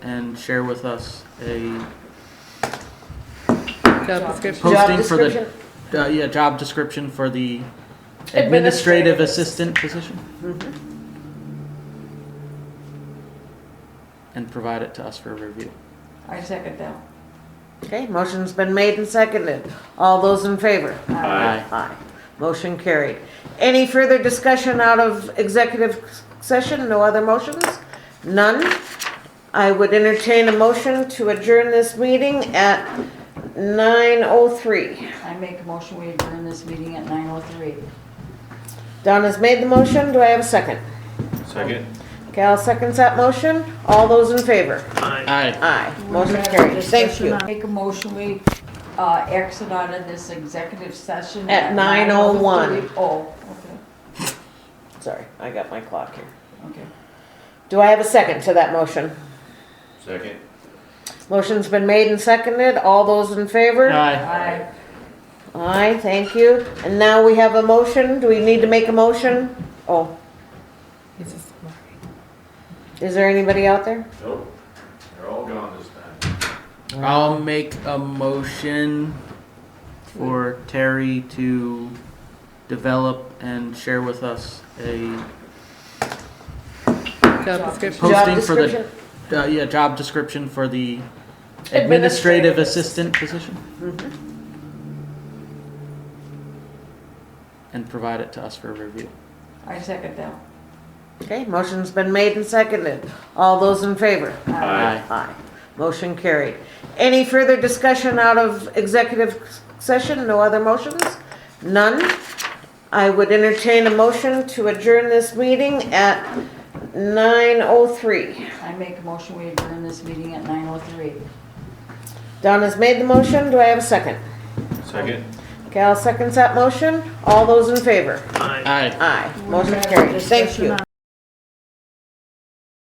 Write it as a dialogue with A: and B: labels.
A: and share with us a
B: Job description.
C: Job
A: posting for the,
C: description.
A: uh, yeah, job description for the administrative
C: Administrative.
A: assistant Mm-hmm. position? And provide it to us for review.
B: I second that.
C: Okay, motion's been made and seconded. All those in favor?
A: Aye.
C: Aye. Motion carried. Any further discussion out of executive session? No other motions? None? I would entertain a motion to adjourn this meeting at 9:03.
B: I make a motion, we adjourn this meeting at nine oh three.
C: Donna's made the motion. Do I have a second?
D: Second.
C: Cal seconds that motion. All those in favor?
A: Aye.
C: Aye. Motion carried. Thank you.
B: Make a motion, we, uh, exit out of this executive session.
C: At 9:01.
B: 9:03. Oh, okay,
C: Sorry, I got my clock here.
B: okay.
C: Do I have a second to that motion?
D: Second.
C: Motion's been made and seconded. All those in favor?
A: Aye.
B: Aye.
C: Aye, thank you. And now we have a motion. Do we need to make a motion? Oh, is there anybody out there?
D: Nope. They're all gone this time.
A: I'll make a motion for Terry to develop and share with us a
B: Job description.
C: Job
A: posting for the,
C: description?
A: uh, yeah, job description for the administrative
C: Administrative.
A: assistant position?
C: Mm-hmm.
A: And provide it to us for review.
B: I second that.
C: Okay, motion's been made and seconded. All those in favor?
D: Aye.
C: Aye. Motion carried. Any further discussion out of executive session? No other motions? None? I would entertain a motion to adjourn this meeting at 9:03.
B: I make a motion, we adjourn this meeting at nine oh three.
C: Donna's made the motion. Do I have a second?
D: Second.
C: Cal seconds that motion. All those in favor?
A: Aye.
C: Aye. Motion carried. Thank you.